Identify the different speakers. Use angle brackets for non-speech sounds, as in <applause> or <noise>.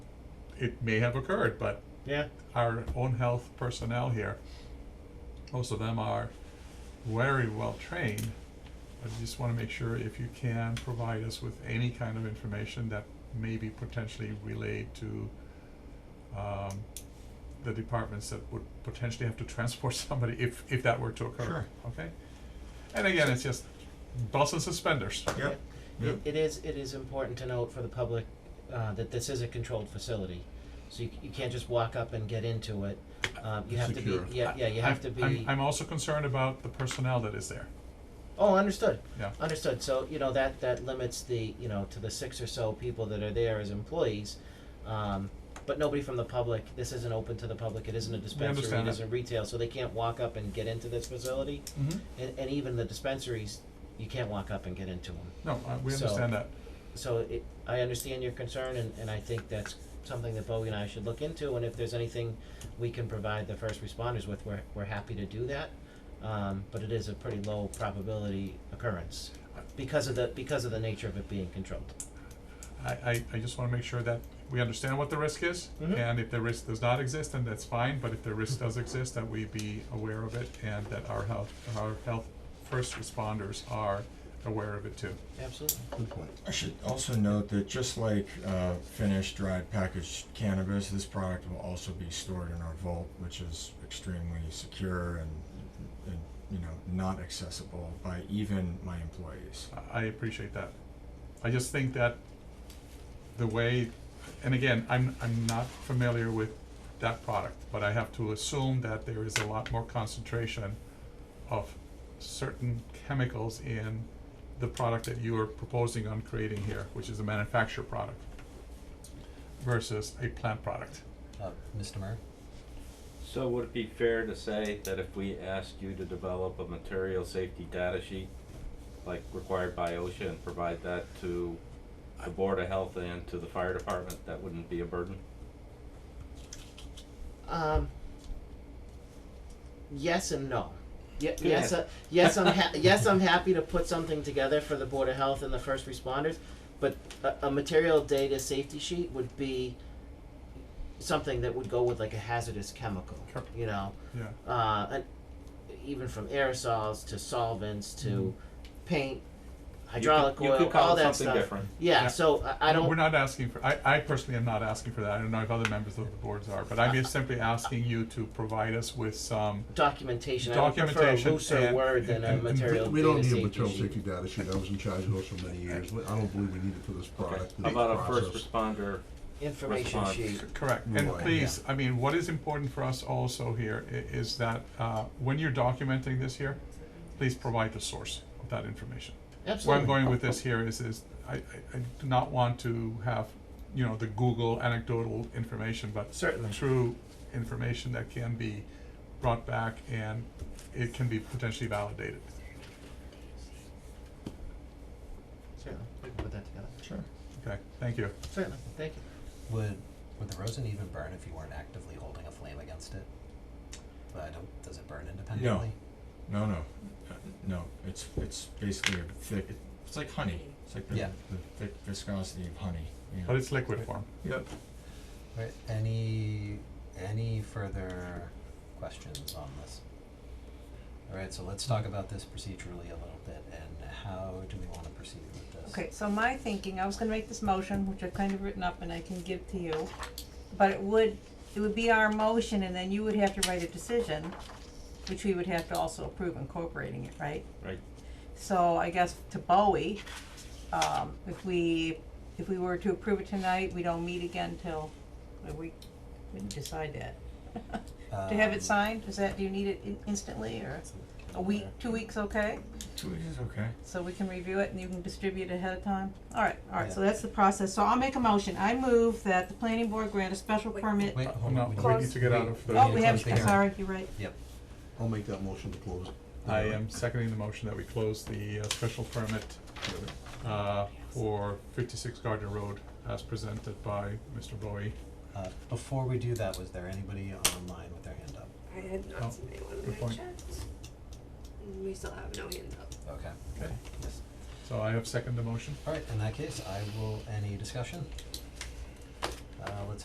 Speaker 1: it may have occurred, but
Speaker 2: Yeah,
Speaker 1: our own health personnel here, most of them are very well trained. I just wanna make sure if you can provide us with any kind of information that may be potentially relayed to um the departments that would potentially have to transport <laughs> somebody if if that were to occur,
Speaker 3: Sure.
Speaker 1: okay? And again, it's just belts and suspenders.
Speaker 3: Yep.
Speaker 2: it, it is, it is important to note for the public, uh, that this is a controlled facility. So you, c- you can't just walk up and get into it, um, you have to be,
Speaker 3: Secure.
Speaker 2: yeah, yeah, you have
Speaker 1: I-
Speaker 2: to be.
Speaker 1: I'm- I'm also concerned about the personnel that is there,
Speaker 2: Oh, understood.
Speaker 1: Yeah.
Speaker 2: Understood. So, you know, that, that limits the, you know, to the six or so people that are there as employees. Um, but nobody from the public, this isn't open to the public, it isn't a dispensary,
Speaker 1: understand
Speaker 2: it
Speaker 1: that.
Speaker 2: isn't retail, so they can't walk up and get into this facility.
Speaker 1: Mm-hmm.
Speaker 2: And, and even the dispensaries, you can't walk up and get into them.
Speaker 1: No, uh, we
Speaker 2: So-
Speaker 1: understand that.
Speaker 2: So it, I understand your concern and, and I think that's something that Bowie and I should look into and if there's anything we can provide the first responders with, we're, we're happy to do that. Um, but it is a pretty low probability occurrence because of the, because of the nature of it being controlled.
Speaker 1: I, I, I just wanna make sure that we understand what the risk is,
Speaker 2: Mhm.
Speaker 1: and if the risk does not exist, then that's fine, but if the risk does exist, that we be aware of it, and that our health, our health first responders are aware of it too.
Speaker 2: Absolutely.
Speaker 3: Good point.
Speaker 4: I should also note that just like uh, finished dried packaged cannabis, this product will also be stored in our vault, which is extremely secure and, and you know not accessible by even my employees.
Speaker 1: I- I appreciate that. I just think that the way, and again, I'm, I'm not familiar with that product, but I have to assume that there is a lot more concentration of certain chemicals in the product that you are proposing on creating here, which is a manufactured product versus a plant product.
Speaker 5: Uh, Mr. Murray?
Speaker 6: So would it be fair to say that if we asked you to develop a material safety data sheet, like required by OSHA, and provide that to the Board of Health and to the fire department, that wouldn't be a burden?
Speaker 2: Um, yes and no. Ye-
Speaker 6: Go
Speaker 2: yes,
Speaker 6: ahead.
Speaker 2: uh, yes, I'm ha- yes, I'm happy to put something together for the Board of Health and the first responders, but a, a material data safety sheet would be something that would go with like a hazardous chemical,
Speaker 1: Sure.
Speaker 2: you know,
Speaker 1: Yeah,
Speaker 2: uh, and even from aerosols to solvents to paint, hydraulic
Speaker 6: you
Speaker 2: oil,
Speaker 6: could call
Speaker 2: all
Speaker 6: it
Speaker 2: that
Speaker 6: something
Speaker 2: stuff.
Speaker 6: different.
Speaker 2: Yeah,
Speaker 1: Yeah.
Speaker 2: so I, I don't.
Speaker 1: We're not asking for, I, I personally am not asking for that. I don't know if other members of the boards are, but I'm just simply asking you to provide us with some
Speaker 2: documentation. I would prefer
Speaker 1: Documentation
Speaker 2: a looser
Speaker 1: and-
Speaker 2: word than
Speaker 1: and-
Speaker 2: a
Speaker 1: and- and
Speaker 2: material
Speaker 3: We don't
Speaker 2: data
Speaker 3: need
Speaker 2: safety
Speaker 3: a material
Speaker 2: sheet.
Speaker 3: safety data sheet, I was in charge of those for many years, We- I don't believe we need it for this
Speaker 6: Okay,
Speaker 3: product.
Speaker 6: how about a first responder,
Speaker 2: information
Speaker 6: Response.
Speaker 2: sheet.
Speaker 1: Correct, and
Speaker 3: Right.
Speaker 1: please, I mean, what is important for us also here i- is that, uh, when you're documenting this here, please provide the source of that information. Where I'm
Speaker 2: Absolutely.
Speaker 1: going with this here is, is I, I, I do not want to have, you know, the Google anecdotal information, but
Speaker 2: Certainly.
Speaker 1: true information that can be brought back and it can be potentially validated.
Speaker 2: Certainly. We can put that together.
Speaker 4: Sure.
Speaker 1: Okay, thank you.
Speaker 2: Certainly. Thank you.
Speaker 5: Would would the rosin even burn if you weren't actively holding a flame against it? But I don't. Does it burn independently?
Speaker 4: No, no, Uh, no. It's it's basically a thick. It's like honey. It's like the,
Speaker 5: Yeah.
Speaker 4: the thick viscosity of honey. you know.
Speaker 1: But it's liquid form.
Speaker 3: Yep,
Speaker 5: Right. Any any further questions on this? All right. So let's talk about this procedurally a little bit, and how do we want to proceed with this?
Speaker 7: Okay, so my thinking, I was gonna make this motion, which I've kind of written up and I can give to you, but it would, it would be our motion and then you would have to write a decision, which we would have to also approve incorporating it, right?
Speaker 6: right?
Speaker 7: So I guess to Bowie, um, if we, if we were to approve it tonight, we don't meet again till, uh, we, we didn't decide that. <laughs> To have
Speaker 5: Um,
Speaker 7: it signed, is that, do you need it in- instantly or a week, two weeks, okay?
Speaker 4: Two weeks is okay.
Speaker 7: So we can review it and you can distribute it ahead of time? Alright, alright, so that's the process, so I'll make a motion, I move that the planning board grant a special permit.
Speaker 5: Wait. Hold
Speaker 1: No,
Speaker 5: on.
Speaker 1: we
Speaker 7: Close.
Speaker 1: need to get out of the.
Speaker 7: Oh, we
Speaker 5: Yeah,
Speaker 7: have,
Speaker 5: close the
Speaker 7: I'm
Speaker 5: hearing.
Speaker 7: sorry, you're right,
Speaker 5: Yep.
Speaker 3: I'll make that motion to close.
Speaker 1: I am seconding the motion that we close the uh, special permit uh, for fifty-six Gardner Road as presented by Mr. Bowie.
Speaker 5: Uh, before we do that, was there anybody online with their hand up?
Speaker 8: I had
Speaker 1: Oh,
Speaker 8: not seen anyone
Speaker 1: good
Speaker 8: when I
Speaker 1: point.
Speaker 8: checked. And We still have no hands up.
Speaker 5: Okay.
Speaker 1: Okay.
Speaker 5: Yes.
Speaker 1: So I have seconded the motion.
Speaker 5: All right. In that case, I will. Any discussion? Uh, let's